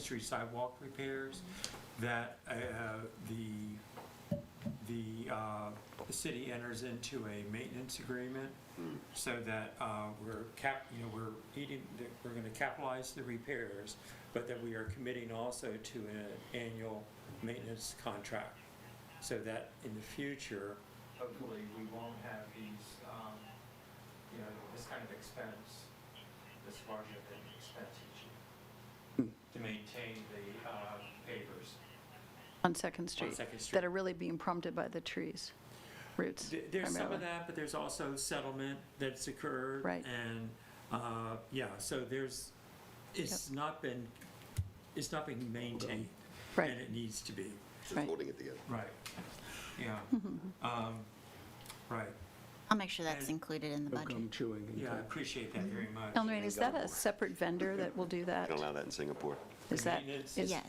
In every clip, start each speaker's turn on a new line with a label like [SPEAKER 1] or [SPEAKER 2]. [SPEAKER 1] Street sidewalk repairs, that uh, the, the, uh, the city enters into a maintenance agreement so that uh, we're cap, you know, we're eating, that we're going to capitalize the repairs, but that we are committing also to an annual maintenance contract. So that in the future,
[SPEAKER 2] hopefully we won't have these, um, you know, this kind of expense, this large of an expense each year to maintain the uh, pavers.
[SPEAKER 3] on Second Street.
[SPEAKER 1] Second Street.
[SPEAKER 3] That are really being prompted by the trees, roots
[SPEAKER 1] Th- There's some of
[SPEAKER 3] primarily.
[SPEAKER 1] that, but there's also settlement that's occurred.
[SPEAKER 3] Right.
[SPEAKER 1] And, uh, yeah, so there's, it's not been, it's not being maintained.
[SPEAKER 3] Right.
[SPEAKER 1] And it needs to be.
[SPEAKER 4] Just
[SPEAKER 3] Right.
[SPEAKER 4] holding it together.
[SPEAKER 1] Right. Yeah.
[SPEAKER 3] Mm-hmm.
[SPEAKER 1] Um, Right.
[SPEAKER 5] I'll make sure that's
[SPEAKER 1] And-
[SPEAKER 5] included in the
[SPEAKER 6] No gum
[SPEAKER 5] budget.
[SPEAKER 6] chewing. in
[SPEAKER 1] Yeah, I
[SPEAKER 6] fact.
[SPEAKER 1] appreciate that very much.
[SPEAKER 3] Elnrain, is that a separate vendor that will do that?
[SPEAKER 4] They don't allow that in Singapore.
[SPEAKER 3] Is that?
[SPEAKER 1] Maintenance.
[SPEAKER 3] is-
[SPEAKER 5] Yes.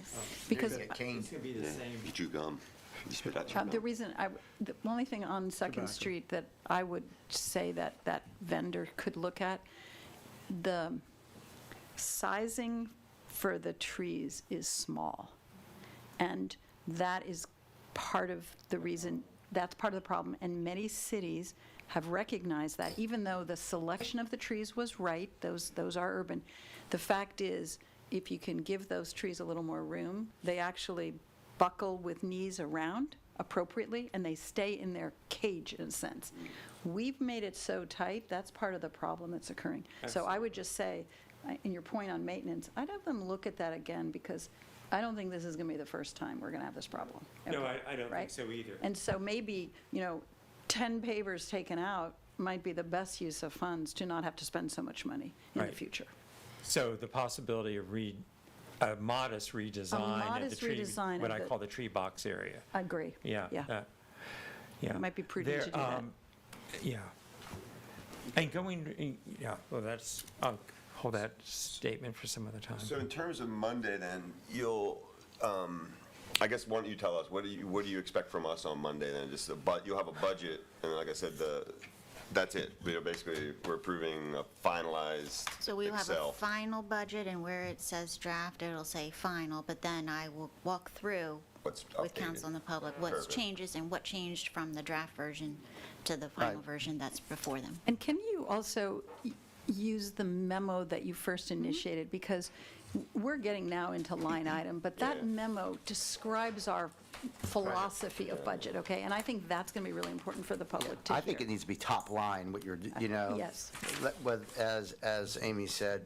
[SPEAKER 3] Because
[SPEAKER 1] It's going to be the same.
[SPEAKER 4] You chew gum. You spit out your
[SPEAKER 3] uh, the
[SPEAKER 4] gum.
[SPEAKER 3] reason, I, the only thing on Second
[SPEAKER 6] Tobacco.
[SPEAKER 3] Street that I would say that that vendor could look at, the sizing for the trees is small. And that is part of the reason, that's part of the problem. And many cities have recognized that, even though the selection of the trees was right, those, those are urban. The fact is, if you can give those trees a little more room, they actually buckle with knees around appropriately, and they stay in their cage in a sense. We've made it so tight, that's part of the problem that's occurring. So I would just say, I- and your point on maintenance, I'd have them look at that again, because I don't think this is going to be the first time we're going to have this problem.
[SPEAKER 1] No, I- I don't think
[SPEAKER 3] Right?
[SPEAKER 1] so either.
[SPEAKER 3] And so maybe, you know, 10 pavers taken out might be the best use of funds to not have to spend so much money in the
[SPEAKER 1] Right.
[SPEAKER 3] future.
[SPEAKER 1] So the possibility of re, a modest redesign of the
[SPEAKER 3] modest
[SPEAKER 1] tree,
[SPEAKER 3] redesign
[SPEAKER 1] what
[SPEAKER 3] of
[SPEAKER 1] I
[SPEAKER 3] the-
[SPEAKER 1] call the tree box area.
[SPEAKER 3] I agree.
[SPEAKER 1] Yeah.
[SPEAKER 3] Yeah.
[SPEAKER 1] that- Yeah.
[SPEAKER 3] It might be prudent to
[SPEAKER 1] There,
[SPEAKER 3] do that.
[SPEAKER 1] um, Yeah. And going, yeah, well, that's, I'll hold that statement for some other time.
[SPEAKER 4] So in terms of Monday, then, you'll, um, I guess, why don't you tell us, what do you, what do you expect from us on Monday, then? Just a, but, you'll have a budget, and like I said, the, that's it. We are basically, we're approving a finalized Excel.
[SPEAKER 5] So we will have a final budget, and where it says draft, it'll say final, but then I will walk through
[SPEAKER 4] What's
[SPEAKER 5] with
[SPEAKER 4] updated.
[SPEAKER 5] council and the public what's
[SPEAKER 4] Perfect.
[SPEAKER 5] changes and what changed from the draft version to the final
[SPEAKER 4] Right.
[SPEAKER 5] version that's before them.
[SPEAKER 3] And can you also y- use the memo that you first initiated? Because w- we're getting now into line item, but
[SPEAKER 4] Yeah.
[SPEAKER 3] that memo describes our philosophy of budget, okay? And I think that's going to be really important for the public to hear.
[SPEAKER 7] I think it needs to be top line, what you're, you know.
[SPEAKER 3] Yes.
[SPEAKER 7] let- with- As, as Amy said,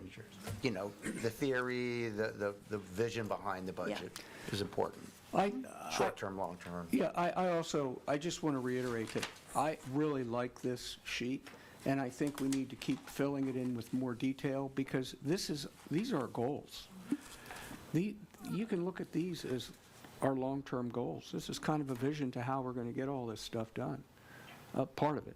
[SPEAKER 7] you know, the theory, the, the, the vision behind the budget is important,
[SPEAKER 6] I,
[SPEAKER 7] short-term, long-term.
[SPEAKER 6] yeah, I, I also, I just want to reiterate that I really like this sheet, and I think we need to keep filling it in with more detail, because this is, these are our goals. The, you can look at these as our long-term goals. This is kind of a vision to how we're going to get all this stuff done, uh, part of it.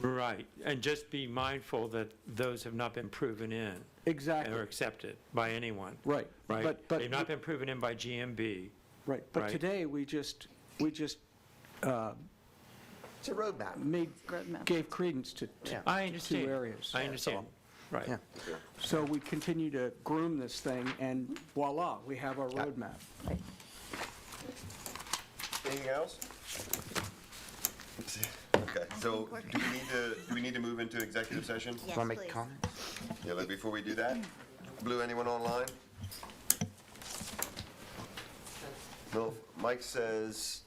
[SPEAKER 1] Right, and just be mindful that those have not been proven in.
[SPEAKER 6] Exactly.
[SPEAKER 1] Or accepted by anyone.
[SPEAKER 6] Right,
[SPEAKER 1] Right?
[SPEAKER 6] but- but-
[SPEAKER 1] They've not been proven in by GMB.
[SPEAKER 6] Right, but
[SPEAKER 1] Right.
[SPEAKER 6] today, we just, we just
[SPEAKER 7] It's a roadmap.
[SPEAKER 6] made,
[SPEAKER 3] Roadmap.
[SPEAKER 6] gave credence to t-
[SPEAKER 7] Yeah.
[SPEAKER 1] I understand.
[SPEAKER 6] two areas.
[SPEAKER 1] I understand,
[SPEAKER 6] Yeah.
[SPEAKER 1] right.
[SPEAKER 6] So we continue to groom this thing, and voila, we have our roadmap.
[SPEAKER 4] Anything else? Okay, so
[SPEAKER 5] think we're-
[SPEAKER 4] do we need to, do we need to move into executive session?
[SPEAKER 5] Yes,
[SPEAKER 7] Want to make
[SPEAKER 5] please.
[SPEAKER 7] comments?
[SPEAKER 4] Yeah, but before we do that, Blue, anyone online? No, Mike says,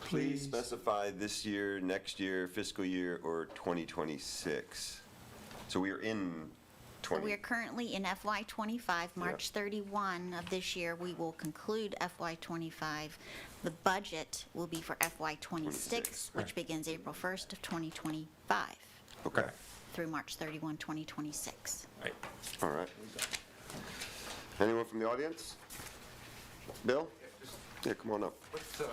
[SPEAKER 4] please specify this year, next year, fiscal year, or 2026. So we are in
[SPEAKER 5] So we
[SPEAKER 4] 20,
[SPEAKER 5] are currently in FY '25, March 31 of this year, we will conclude FY '25. The budget will be for FY '26,
[SPEAKER 4] '26,
[SPEAKER 5] which begins April 1st of 2025
[SPEAKER 4] okay,
[SPEAKER 5] through March 31, 2026.
[SPEAKER 1] Right.
[SPEAKER 4] all right. Anyone from the audience? Bill? Yeah, come on up.
[SPEAKER 8] What's, uh,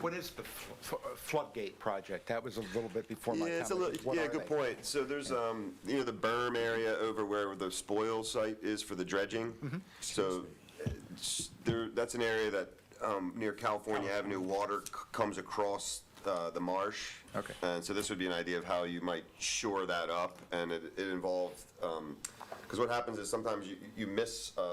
[SPEAKER 8] What is the Fl- Fl- floodgate project? That was a little bit before my time.
[SPEAKER 4] Yeah, it's a little,
[SPEAKER 8] What
[SPEAKER 4] yeah,
[SPEAKER 8] are
[SPEAKER 4] good
[SPEAKER 8] they?
[SPEAKER 4] point. So there's, um, you know, the berm area over where the spoil site is for the
[SPEAKER 8] Mm-hmm.
[SPEAKER 4] dredging. So uh, s- there, that's an area that, um, near California Avenue, water c- comes across, uh, the marsh.
[SPEAKER 8] Okay.
[SPEAKER 4] And so this would be an idea of how you might shore that up, and it, it involved, um 'cause because what happens is sometimes you, you miss a,